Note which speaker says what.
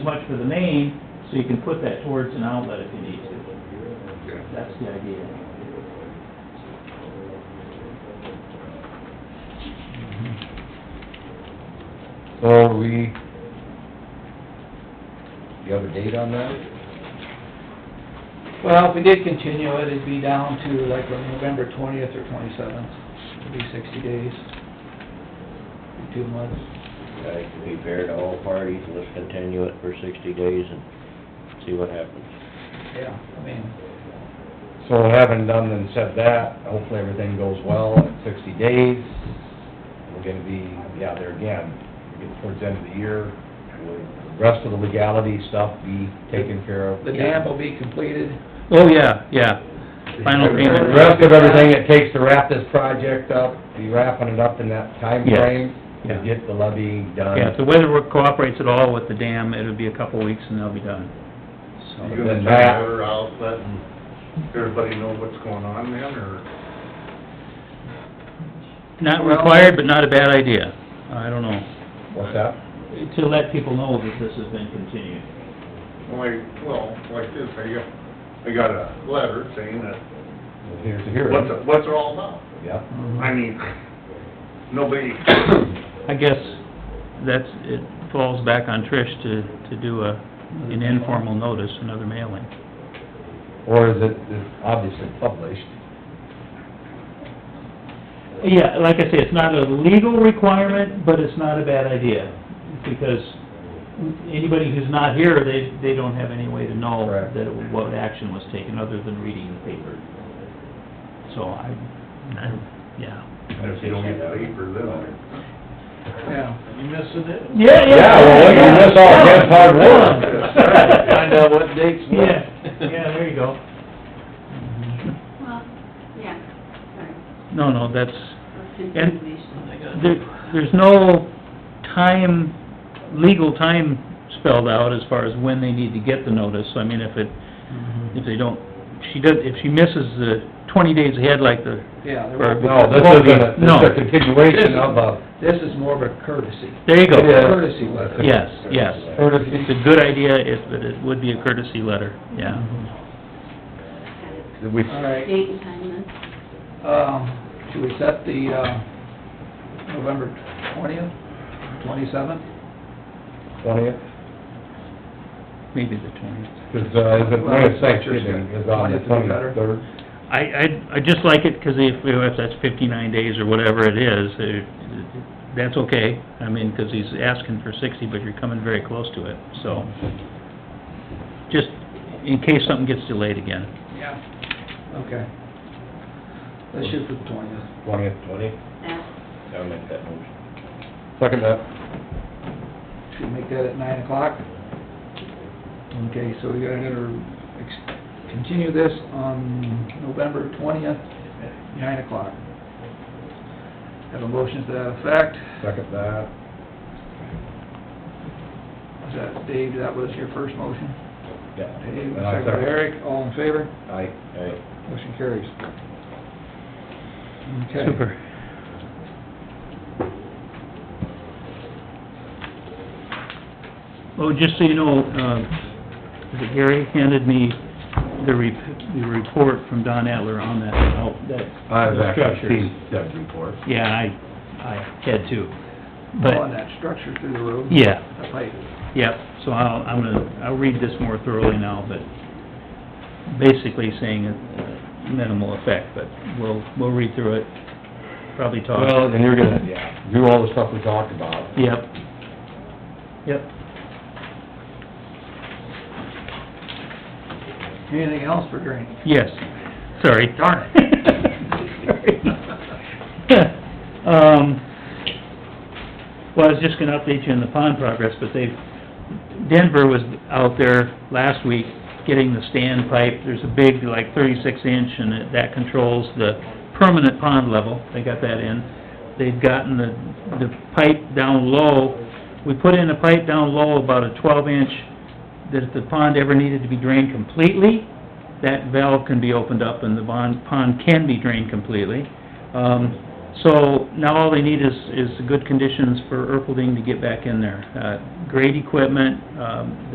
Speaker 1: much for the main, so you can put that towards an outlet if you need to.
Speaker 2: Okay.
Speaker 1: That's the idea.
Speaker 3: So are we, you have a date on that?
Speaker 4: Well, if we did continue it, it'd be down to like November twentieth or twenty-seventh, it'd be sixty days, Be two months.
Speaker 5: I think to be fair to all parties, let's continue it for sixty days and see what happens.
Speaker 4: Yeah, I mean,
Speaker 3: So having done and said that, hopefully everything goes well in sixty days. We're gonna be, yeah, there again, we get towards the end of the year, will the rest of the legality stuff be taken care of?
Speaker 4: the dam will be completed,
Speaker 6: Oh, yeah, yeah. Final
Speaker 3: The
Speaker 6: payment,
Speaker 3: rest of everything it takes to wrap this project up, be wrapping it up in that time frame
Speaker 6: Yeah,
Speaker 3: to
Speaker 6: yeah.
Speaker 3: get the levy done.
Speaker 6: Yeah, if the weather cooperates at all with the dam, it'll be a couple of weeks and they'll be done. So,
Speaker 2: You gonna
Speaker 3: Then
Speaker 2: try
Speaker 3: that-
Speaker 2: to her out, letting everybody know what's going on then, or?
Speaker 6: Not required, but not a bad idea. I don't know.
Speaker 3: What's that?
Speaker 1: To let people know that this has been continued.
Speaker 2: Like, well, like this, I got, I got a letter saying that,
Speaker 3: Here's the hearing.
Speaker 2: what's, it- what's it all about?
Speaker 3: Yeah.
Speaker 2: I mean, nobody,
Speaker 6: I guess that's, it falls back on Trish to, to do a,
Speaker 4: Mm-hmm.
Speaker 6: an informal notice, another mailing.
Speaker 3: Or is it, it's obviously published?
Speaker 1: Yeah, like I say, it's not a legal requirement, but it's not a bad idea, because anybody who's not here, they, they don't have any way to know
Speaker 3: Correct.
Speaker 1: that it- what action was taken, other than reading the paper. So I, I- yeah.
Speaker 2: if you don't get the paper, then.
Speaker 4: yeah.
Speaker 2: You missing it?
Speaker 1: Yeah,
Speaker 3: Yeah, well, you miss all Ken's hard work.
Speaker 2: Find out
Speaker 1: what dates. Yeah, yeah, there you go.
Speaker 7: Well, yeah, sorry,
Speaker 6: No, no, that's,
Speaker 7: that's
Speaker 6: And-
Speaker 7: information.
Speaker 6: There, there's no time, legal time spelled out as far as when they need to get the notice. I mean, if it,
Speaker 4: Mm-hmm.
Speaker 6: if they don't, she does, if she misses the twenty days ahead like the,
Speaker 4: Yeah, there
Speaker 6: or-
Speaker 4: won't-
Speaker 3: No, this
Speaker 6: won't be-
Speaker 3: isn't, a- this is a
Speaker 6: No,
Speaker 3: continuation of a,
Speaker 4: this is more of a courtesy,
Speaker 6: there you
Speaker 3: It is.
Speaker 6: go.
Speaker 4: courtesy letter.
Speaker 6: Yes, yes.
Speaker 3: Courtesy.
Speaker 6: It's a good idea, if, but it would be a courtesy letter, yeah.
Speaker 3: we,
Speaker 4: All right,
Speaker 7: Date and time then,
Speaker 4: um, should we set the, uh, November twentieth, twenty-seventh?
Speaker 3: twentieth,
Speaker 6: Maybe the twentieth.
Speaker 3: cause, uh, is it, when is Thanksgiving, is on the
Speaker 4: 20th would be better.
Speaker 3: twenty-third?
Speaker 6: I, I, I just like it, 'cause if, if that's fifty-nine days or whatever it is, it- that's okay. I mean, 'cause he's asking for sixty, but you're coming very close to it, so. Just in case something gets delayed again.
Speaker 4: Yeah. Okay. Let's shoot for the twentieth.
Speaker 3: Twentieth,
Speaker 5: Twenty,
Speaker 7: that,
Speaker 5: I'll make that motion.
Speaker 3: second that.
Speaker 4: Should we make that at nine o'clock? Okay, so we gotta ex continue this on November twentieth at nine o'clock. Have a motion to that effect.
Speaker 3: Second that.
Speaker 4: Is that, Dave, that was your first motion?
Speaker 3: Yeah.
Speaker 4: Dave,
Speaker 3: And I
Speaker 4: second by Eric, all in favor?
Speaker 3: Aye.
Speaker 4: Motion carries. Okay.
Speaker 6: Super. Oh, just so you know, uh, is it Gary handed me the re, the report from Don Adler on that, out that.
Speaker 3: I've
Speaker 6: those structures.
Speaker 3: actually seen that report.
Speaker 6: Yeah, I, I had to,
Speaker 4: On
Speaker 6: but,
Speaker 4: that structure through the road.
Speaker 6: yeah,
Speaker 4: The pipe.
Speaker 6: Yep, so I'll, I'm gonna, I'll read this more thoroughly now, but basically saying uh, minimal effect, but we'll, we'll read through it, probably talk.
Speaker 3: Well, and you're gonna, yeah, do all the stuff we talked about.
Speaker 6: Yep. Yep.
Speaker 4: Anything else for drainage?
Speaker 6: Yes, sorry.
Speaker 4: Darn
Speaker 6: it. Um, well, I was just gonna update you on the pond progress, but they've, Denver was out there last week getting the stand pipe. There's a big, like thirty-six inch, and it- that controls the permanent pond level. They got that in. They've gotten the, the pipe down low. We put in a pipe down low about a twelve inch, that if the pond ever needed to be drained completely, that valve can be opened up and the bond, pond can be drained completely. Um, so now all they need is, is good conditions for Erpelding to get back in there. Uh, great equipment, um,